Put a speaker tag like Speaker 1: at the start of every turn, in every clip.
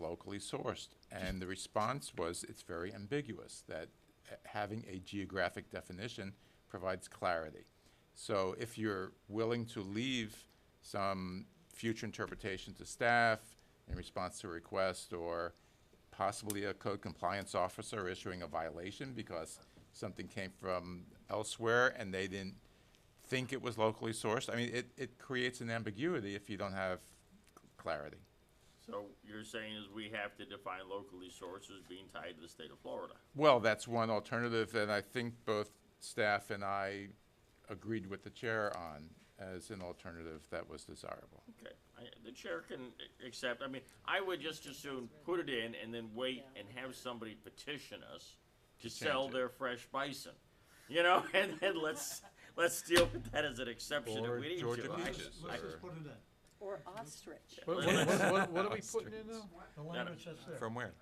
Speaker 1: locally sourced. And the response was, it's very ambiguous, that uh, having a geographic definition provides clarity. So if you're willing to leave some future interpretation to staff in response to a request, or possibly a code compliance officer issuing a violation because something came from elsewhere and they didn't think it was locally sourced, I mean, it, it creates an ambiguity if you don't have clarity.
Speaker 2: So you're saying is we have to define locally sources being tied to the state of Florida?
Speaker 1: Well, that's one alternative, and I think both staff and I agreed with the chair on as an alternative that was desirable.
Speaker 2: Okay, I, the chair can a- accept, I mean, I would just as soon put it in and then wait and have somebody petition us to sell
Speaker 1: it.
Speaker 2: their fresh bison, you know, and then let's, let's deal with that as an exception if
Speaker 1: Or
Speaker 2: we need to.
Speaker 1: Georgia
Speaker 2: I-
Speaker 1: peaches,
Speaker 2: I-
Speaker 3: Let's just put it in,
Speaker 4: Or ostrich.
Speaker 5: What, what, what- what- what are we putting in now?
Speaker 3: the language that's there.
Speaker 6: From where?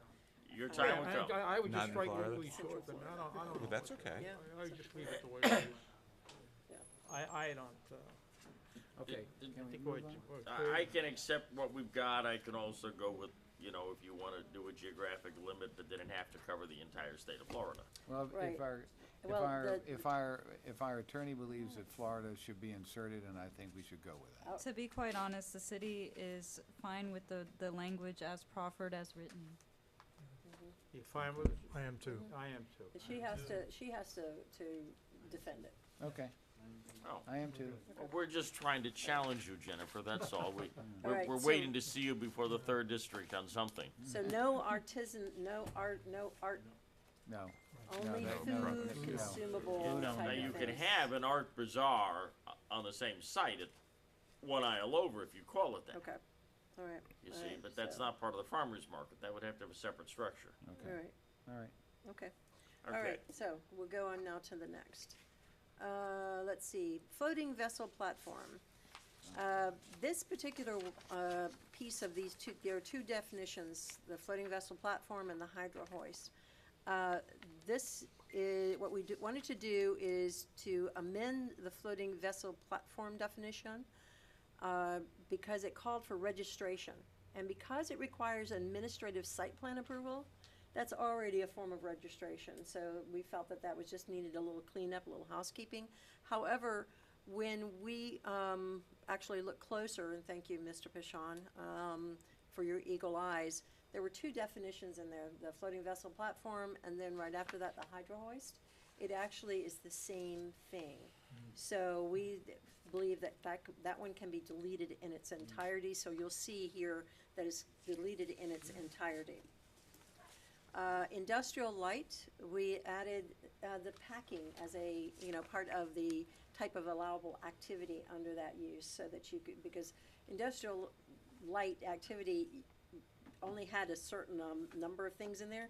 Speaker 2: Your
Speaker 5: I,
Speaker 2: time will come.
Speaker 5: I- I would
Speaker 6: Not
Speaker 5: just
Speaker 6: in
Speaker 5: strike
Speaker 6: Florida.
Speaker 5: locally short, but I don't, I don't know.
Speaker 6: Well, that's okay.
Speaker 4: Yeah.
Speaker 5: I would just leave it the way it is. I, I don't, uh, okay,
Speaker 2: did-
Speaker 5: I think we're, we're clear.
Speaker 2: Uh, I, I can accept what we've got, I can also go with, you know, if you wanna do a geographic limit, but then it have to cover the entire state of Florida.
Speaker 7: Well, if-
Speaker 4: Right.
Speaker 7: if our, if
Speaker 4: Well,
Speaker 7: our,
Speaker 4: the-
Speaker 7: if our, if our attorney believes that Florida should be inserted, and I think we should go with that.
Speaker 8: To be quite honest, the city is fine with the, the language as proffered as written.
Speaker 5: You fine with it?
Speaker 3: I am too.
Speaker 5: I am too.
Speaker 4: But she has to, she has to, to defend it.
Speaker 7: Okay,
Speaker 2: Oh.
Speaker 7: I am too.
Speaker 2: Well, We're just trying to challenge you, Jennifer, that's all. We, we're,
Speaker 4: Alright,
Speaker 2: we're
Speaker 4: so-
Speaker 2: waiting to see you before the third district on something.
Speaker 4: So no artisan, no art, no art,
Speaker 7: No,
Speaker 4: only
Speaker 7: no, no,
Speaker 4: food
Speaker 7: no.
Speaker 4: consumable
Speaker 7: No.
Speaker 2: Now,
Speaker 4: type
Speaker 2: you
Speaker 4: of
Speaker 2: can
Speaker 4: things.
Speaker 2: have an art bazaar o- on the same site at One Isle Over if you call it that,
Speaker 4: Okay, all right.
Speaker 2: you
Speaker 4: all
Speaker 2: see,
Speaker 4: right,
Speaker 2: but that's
Speaker 4: so-
Speaker 2: not part of the farmer's market. That would have to have a separate structure.
Speaker 4: All
Speaker 7: okay,
Speaker 4: right,
Speaker 7: all right.
Speaker 4: okay. All
Speaker 2: Okay,
Speaker 4: right, so we'll go on now to the next. Uh, let's see, floating vessel platform. Uh, This particular, uh, piece of these two, there are two definitions, the floating vessel platform and the hydro hoist. Uh, This is, what we do- wanted to do is to amend the floating vessel platform definition uh, because it called for registration. And because it requires administrative site plan approval, that's already a form of registration. So we felt that that was just needed a little cleanup, a little housekeeping. However, when we um, actually looked closer, and thank you, Mr. Pishon, um, for your eagle eyes, there were two definitions in there, the floating vessel platform, and then right after that, the hydro hoist. It actually is the same thing. So we th- believe that that, c- that one can be deleted in its entirety, so you'll see here that it's deleted in its entirety. Uh, industrial light, we added, uh, the packing as a, you know, part of the type of allowable activity under that use, so that you could, because industrial light activity only had a certain, um, number of things in there.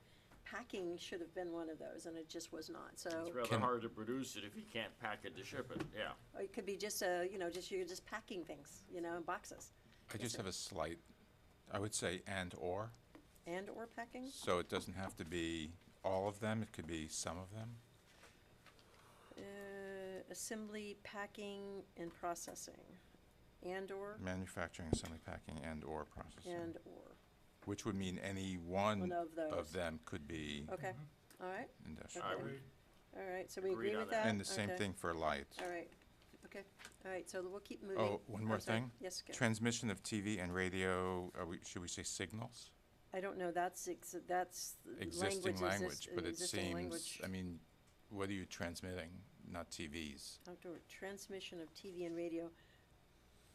Speaker 4: Packing should have been one of those, and it just was not, so.
Speaker 2: it's rather
Speaker 6: Can-
Speaker 2: hard to produce it if you can't pack it to ship it, yeah.
Speaker 4: Or it could be just a, you know, just, you're just packing things, you know, in boxes,
Speaker 1: I just have a slight, I would say and/or,
Speaker 4: and/or packing,
Speaker 1: so it doesn't have to be all of them, it could be some of them.
Speaker 4: uh, assembly, packing, and processing, and/or,
Speaker 1: Manufacturing, assembly, packing, and/or processing,
Speaker 4: and/or,
Speaker 1: which would mean any one
Speaker 4: One of those.
Speaker 1: of them could be
Speaker 4: okay, all right,
Speaker 1: industrial.
Speaker 2: All right, we-
Speaker 4: all right, so we
Speaker 2: Mm-hmm. Agreed
Speaker 4: agree
Speaker 2: on
Speaker 4: with
Speaker 2: that.
Speaker 4: that?
Speaker 1: And the same
Speaker 4: Okay.
Speaker 1: thing for light.
Speaker 4: All right, okay, all right, so we'll keep moving.
Speaker 1: Oh, one
Speaker 4: I'm
Speaker 1: more
Speaker 4: sorry.
Speaker 1: thing?
Speaker 4: Yes, good.
Speaker 1: Transmission of TV and radio, are we, should we say signals?
Speaker 4: I don't know, that's, ex- that's language,
Speaker 1: Existing
Speaker 4: exist,
Speaker 1: language, but it
Speaker 4: existing
Speaker 1: seems,
Speaker 4: language.
Speaker 1: I mean, what are you transmitting? Not TVs,
Speaker 4: Outdoor transmission of TV and radio,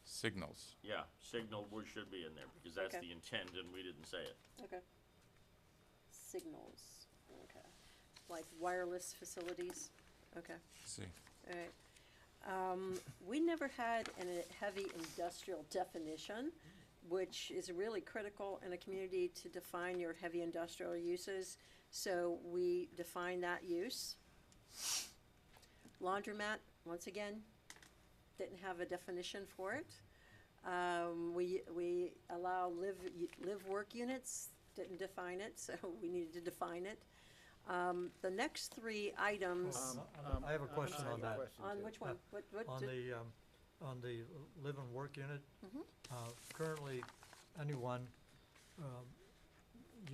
Speaker 1: signals.
Speaker 2: Yeah, signal would, should be in there because that's
Speaker 4: Okay.
Speaker 2: the intent and we didn't say it.
Speaker 4: Okay. Signals, okay. Like wireless facilities, okay,
Speaker 1: See,
Speaker 4: all right. Um, we never had an- a heavy industrial definition, which is really critical in a community to define your heavy industrial uses. So we define that use. Laundromat, once again, didn't have a definition for it. Um, we, we allow live, live work units, didn't define it, so we needed to define it. Um, the next three items,
Speaker 3: Um,
Speaker 7: Um,
Speaker 3: I have a question on that,
Speaker 4: on which one, what, what?
Speaker 3: on
Speaker 4: did-
Speaker 3: the, um, on the live and work unit. Uh, currently, anyone, um,